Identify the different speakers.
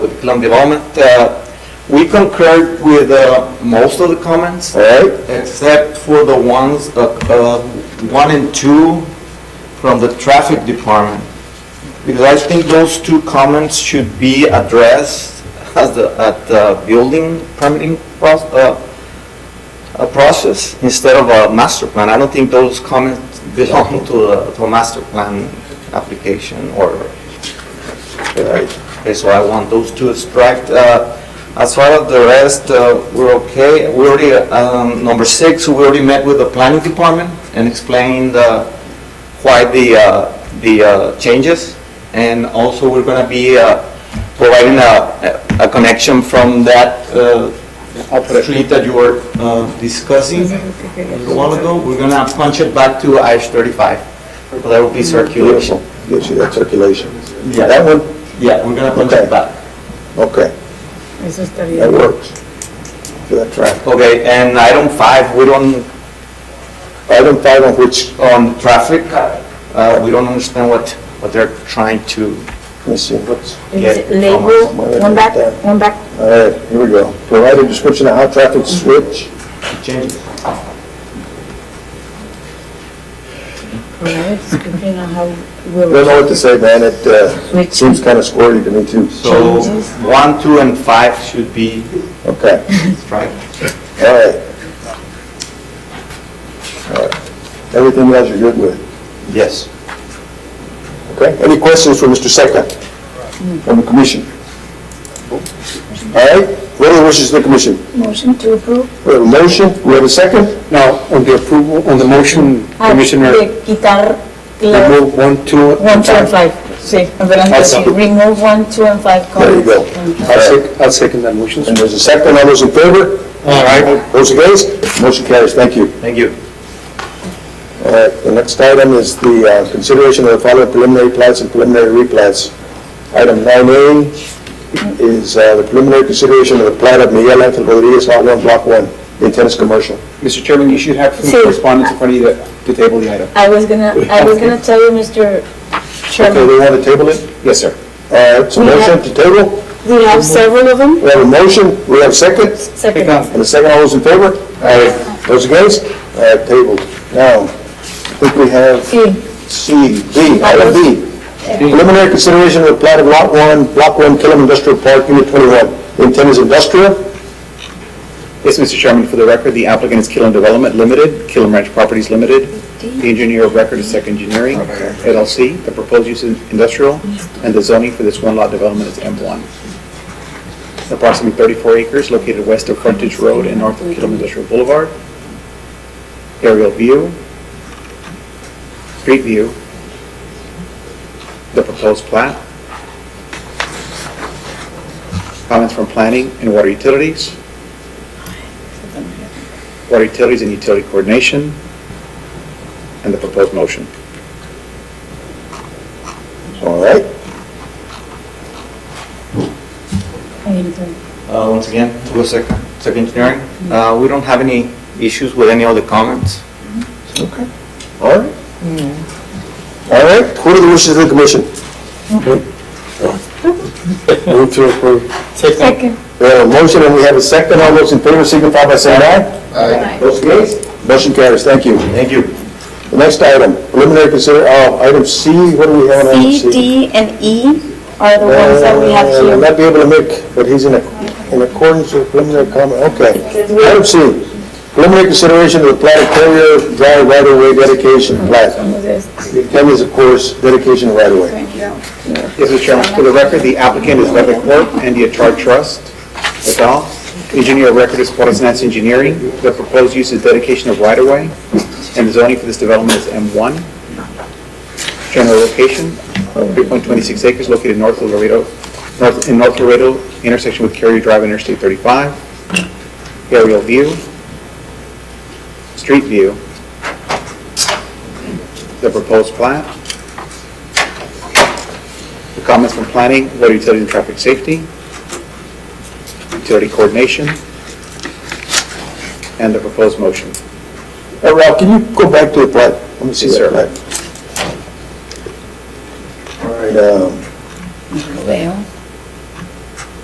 Speaker 1: with Plan Development. Uh, We concurred with uh, most of the comments,
Speaker 2: All right,
Speaker 1: except for the ones, uh, uh, one and two from the Traffic Department. Because I think those two comments should be addressed as the, at the building permitting proc- uh, uh, process instead of a master plan. I don't think those comments belong to a, to a master plan application or Okay, so I want those two striped. Uh, As far as the rest, uh, we're okay. We already, um, number six, we already met with the planning department and explained uh, why the, uh, the uh, changes. And also, we're going to be uh, providing a, a connection from that uh, street that you were uh, discussing a little while ago. We're going to punch it back to I-35. That will be circulation.
Speaker 2: beautiful. Gives Oh, you that circulation.
Speaker 1: Yeah.
Speaker 2: That one,
Speaker 1: Yeah, we're going to punch it
Speaker 2: Okay.
Speaker 1: back.
Speaker 2: okay,
Speaker 3: Eso estaría
Speaker 2: that works. For that traffic.
Speaker 1: Okay, and item five, we don't,
Speaker 2: Item five on which,
Speaker 1: on traffic, uh, we don't understand what, what they're trying to,
Speaker 2: let me see, what's,
Speaker 3: Dice,
Speaker 1: Yeah,
Speaker 3: label, one back, one back.
Speaker 2: all right, here we go. Provide a description of how traffic switch,
Speaker 1: change.
Speaker 3: Alright, description of how
Speaker 2: I
Speaker 3: will.
Speaker 2: don't know what to say, man, it uh,
Speaker 3: Switch.
Speaker 2: seems kind of squirrely to me too.
Speaker 1: So one, two, and five should be
Speaker 2: Okay,
Speaker 1: striped.
Speaker 2: all right. All right. Everything else you're good with,
Speaker 1: Yes.
Speaker 2: okay? Any questions for Mr. Seca
Speaker 1: Hmm.
Speaker 2: from the commission? All right, what are the wishes of the commission?
Speaker 3: Motion to approve.
Speaker 2: We have a motion, we have a second?
Speaker 4: Now, on the approval, on the motion,
Speaker 3: Ah,
Speaker 4: Commissioner,
Speaker 3: de Quitar la,
Speaker 4: remove one, two,
Speaker 3: one,
Speaker 4: and
Speaker 3: two, and five.
Speaker 4: five.
Speaker 3: Sí, adelante,
Speaker 2: Ahí está.
Speaker 3: sí. Remove one, two, and five
Speaker 2: There you
Speaker 3: comments.
Speaker 2: go.
Speaker 4: I'll sec- I'll second that motion.
Speaker 2: And there's a second, all those in favor?
Speaker 1: All right.
Speaker 2: Those against? Motion carries, thank you.
Speaker 1: Thank you.
Speaker 2: All right, the next item is the uh, consideration of the following preliminary plats and preliminary replats. Item 9A is uh, the preliminary consideration of the plat of Miguel Angel Rodriguez, Lot 1, Block 1, in Tennis Commercial.
Speaker 5: Mr. Chairman, you should have
Speaker 3: Sí.
Speaker 5: some correspondence in front of you to- to table the item.
Speaker 3: I was gonna, I was gonna tell you,
Speaker 2: Okay,
Speaker 3: Mr. Chairman,
Speaker 2: they want to table it?
Speaker 5: Yes, sir.
Speaker 2: All right, so
Speaker 3: We
Speaker 2: motion
Speaker 3: have-
Speaker 2: to table,
Speaker 3: we have several of them.
Speaker 2: we have a motion, we have a second,
Speaker 3: Second.
Speaker 2: and a second, all those in favor? Aye. Those against? All right, tabled. Now, I think we have...
Speaker 3: Sí,
Speaker 2: C, B, item B. Preliminary consideration of the plat of Lot 1, Block 1, Killam Industrial Park, Unit 21. The intent is industrial.
Speaker 5: Yes, Mr. Chairman, for the record, the applicant is Killam Development Limited, Killam Ranch Properties Limited. The engineer of record is Sec Engineering LLC. The proposed use is industrial, and the zoning for this one-lot development is M1. Approximately 34 acres located west of Frontage Road and north of Killam Industrial Boulevard. Aerial view, street view, the proposed plat, comments from planning and water utilities, water utilities and utility coordination, and the proposed motion.
Speaker 2: All right.
Speaker 1: Uh, Once again, to go second, second engineering. Uh, We don't have any issues with any of the comments.
Speaker 2: Okay. All right. All right, what are the wishes of the commission?
Speaker 4: Move to approve.
Speaker 3: second.
Speaker 2: We have a motion and we have a second. All those in favor signify by saying aye. Aye. Those against? Motion carries, thank you.
Speaker 1: Thank you.
Speaker 2: The next item, preliminary consider, uh, item C, what do we have on item C?
Speaker 3: C, D, and E are the ones that we have
Speaker 2: Uh,
Speaker 3: here.
Speaker 2: Not be able to make, but he's in, a- in accordance with preliminary comment, okay. Item C, preliminary consideration of the plat of Carrier Drive right-of-way dedication plat. The intent is, of course, dedication of right-of-way.
Speaker 5: Yes, Mr. Chairman, for the record, the applicant is Leather Corp. and the Atar Trust, LaSalle. Engineer of record is Juarez Nance Engineering. The proposed use is dedication of right-of-way, and the zoning for this development is M1. General location, 3.26 acres located north of Laredo, north, in North Laredo, intersection with Carrier Drive and Interstate 35. Aerial view, street view, the proposed plat, the comments from planning, water utility and traffic safety, utility coordination, and the proposed motion.
Speaker 2: Hey, Ralph, can you go back to the plat? Let me see
Speaker 5: Yes,
Speaker 2: that
Speaker 5: sir.
Speaker 2: plat. All right, um,
Speaker 3: Lo veo.